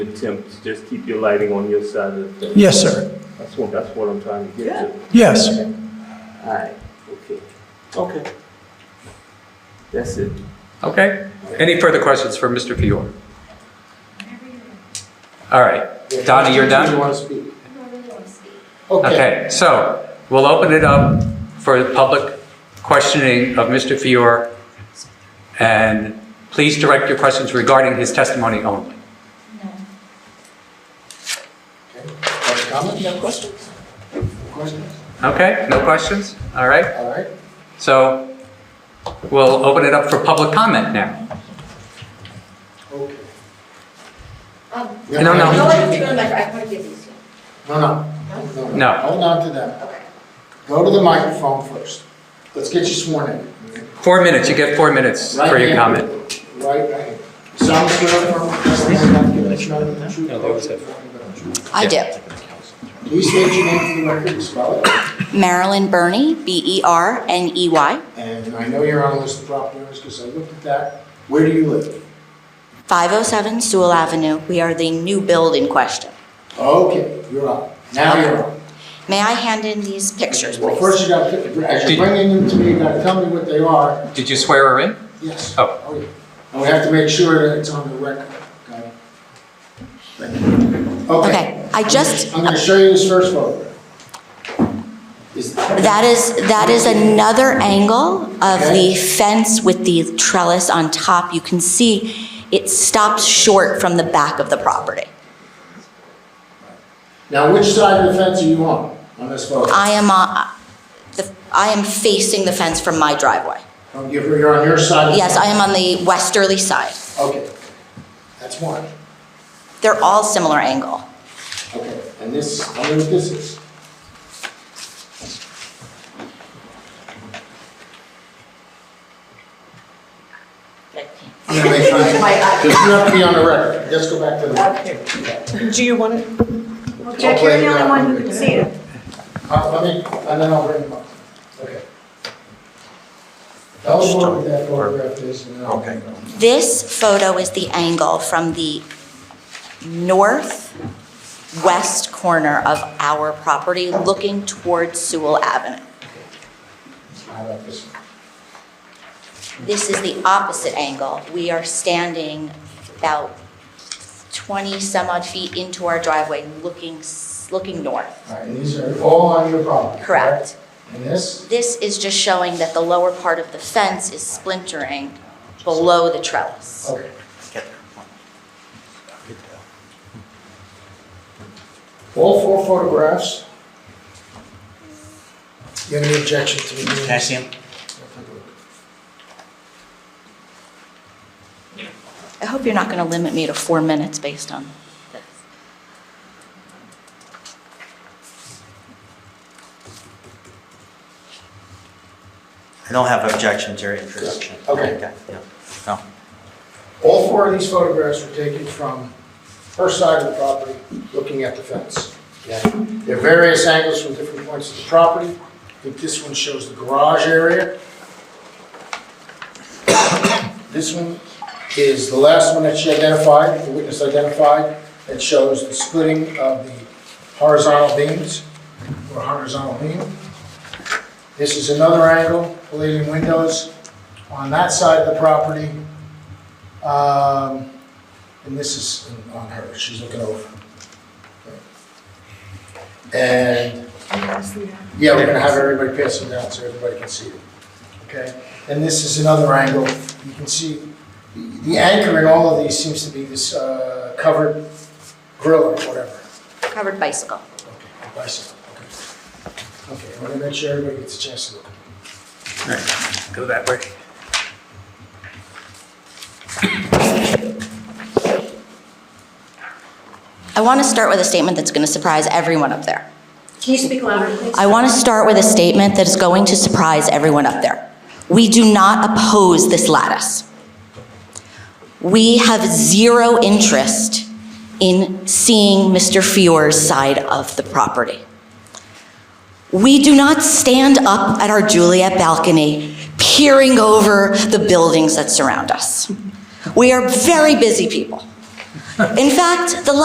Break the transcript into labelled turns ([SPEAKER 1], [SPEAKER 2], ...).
[SPEAKER 1] attempt to just keep your lighting on your side of the fence.
[SPEAKER 2] Yes, sir.
[SPEAKER 1] That's what, that's what I'm trying to get to.
[SPEAKER 2] Yes.
[SPEAKER 1] All right, okay. Okay. That's it.
[SPEAKER 3] Okay. Any further questions for Mr. Fior? All right. Donnie, you're
[SPEAKER 4] You
[SPEAKER 3] done?
[SPEAKER 4] want to speak?
[SPEAKER 5] No, we don't speak.
[SPEAKER 4] Okay.
[SPEAKER 3] Okay, so we'll open it up for the public questioning of Mr. Fior. And please direct your questions regarding his testimony only.
[SPEAKER 5] No.
[SPEAKER 4] Any comments? No questions? Questions?
[SPEAKER 3] Okay, no questions? All right.
[SPEAKER 4] All right.
[SPEAKER 3] So we'll open it up for public comment now.
[SPEAKER 4] Okay.
[SPEAKER 5] Um,
[SPEAKER 3] No, no.
[SPEAKER 5] No, I don't remember, I want to give these to you.
[SPEAKER 4] No, no. No.
[SPEAKER 3] No.
[SPEAKER 4] Hold on to that.
[SPEAKER 5] Okay.
[SPEAKER 4] Go to the microphone first. Let's get you sworn in.
[SPEAKER 3] Four minutes, you get four minutes
[SPEAKER 4] Right
[SPEAKER 3] for your
[SPEAKER 4] hand.
[SPEAKER 3] comment.
[SPEAKER 4] Right, right. hand. Sound clear from the testimony? No, there was
[SPEAKER 6] I do.
[SPEAKER 4] Please state your name for the record and spell it.
[SPEAKER 6] Marilyn E Burney, B-E-R-N-E-Y,
[SPEAKER 4] And I know you're on a list of property owners because I looked at that. Where do you live?
[SPEAKER 6] 507 Sewell Avenue. We are the new build in question.
[SPEAKER 4] Okay, you're on. Now you're on.
[SPEAKER 6] May I hand in these pictures,
[SPEAKER 4] Well,
[SPEAKER 6] please?
[SPEAKER 4] first you gotta, pick- as
[SPEAKER 3] Did-
[SPEAKER 4] you're bringing them to me, you gotta tell me what they are.
[SPEAKER 3] Did you swear her in?
[SPEAKER 4] Yes.
[SPEAKER 3] Oh.
[SPEAKER 4] yeah. And we have to make sure that it's on the record, okay? Thank you. Okay.
[SPEAKER 6] Okay, I just-
[SPEAKER 4] I'm gonna show you this first photograph. Is,
[SPEAKER 6] That is, that is another angle of
[SPEAKER 4] Okay.
[SPEAKER 6] the fence with the trellis on top. You can see it stops short from the back of the property.
[SPEAKER 4] now which side of the fence are you on, on this photograph?
[SPEAKER 6] I am, uh, the- I am facing the fence from my driveway.
[SPEAKER 4] Don't give her, Oh, you're on your side of the
[SPEAKER 6] Yes, I am
[SPEAKER 4] fence.
[SPEAKER 6] on the westerly side.
[SPEAKER 4] Okay, that's one,
[SPEAKER 6] They're all similar angle.
[SPEAKER 4] okay, and this, I wonder what this is. I'm gonna make sure, this has to be on the record, let's go back to the.
[SPEAKER 7] Do you want to?
[SPEAKER 4] I'll
[SPEAKER 7] Jack, you're
[SPEAKER 4] play
[SPEAKER 7] the
[SPEAKER 4] it
[SPEAKER 7] only
[SPEAKER 4] out.
[SPEAKER 7] one who can see it.
[SPEAKER 4] Uh, Let me, and then I'll bring them up. Okay. Tell us what that photograph is and then I'll. Okay.
[SPEAKER 6] This photo is the angle from the northwest corner of our property looking towards Sewell Avenue.
[SPEAKER 4] How about this? one?
[SPEAKER 6] This is the opposite angle. We are standing about 20 some odd feet into our driveway looking, s- looking north.
[SPEAKER 4] All right, and these are all on your property?
[SPEAKER 6] Correct.
[SPEAKER 4] And this?
[SPEAKER 6] This is just showing that the lower part of the fence is splintering below the trellis.
[SPEAKER 4] Okay. All four photographs. You have any objection to me? doing
[SPEAKER 8] Can I
[SPEAKER 4] this?
[SPEAKER 8] see him?
[SPEAKER 6] I hope you're not going to limit me to four minutes based on this.
[SPEAKER 8] I don't have objection to your introduction.
[SPEAKER 4] Okay.
[SPEAKER 8] yeah. No.
[SPEAKER 4] All four of these photographs were taken from her side of the property, looking at the fence. Okay? There are various angles from different points of the property. I think this one shows the garage area. This one is the last one that she identified, the witness identified, that shows the splitting of the horizontal beams, or horizontal beam. This is another angle, leading windows on that side of the property. Um, and this is on her, she's looking over. And, yeah, we're gonna have everybody pass them down so everybody can see it, okay? And this is another angle, you can see, the the anchor in all of these seems to be this, uh, covered grill or whatever.
[SPEAKER 6] Covered bicycle.
[SPEAKER 4] Okay, bicycle, okay. Okay, I wanna make sure everybody gets a chance to look.
[SPEAKER 3] Go that way.
[SPEAKER 6] I want to start with a statement that's going to surprise everyone up there.
[SPEAKER 5] Can you speak louder, please?
[SPEAKER 6] I want to start with a statement that is going to surprise everyone up there. We do not oppose this lattice. We have zero interest in seeing Mr. Fior's side of the property. We do not stand up at our Juliet balcony peering over the buildings that surround us. We are very busy people. In fact, the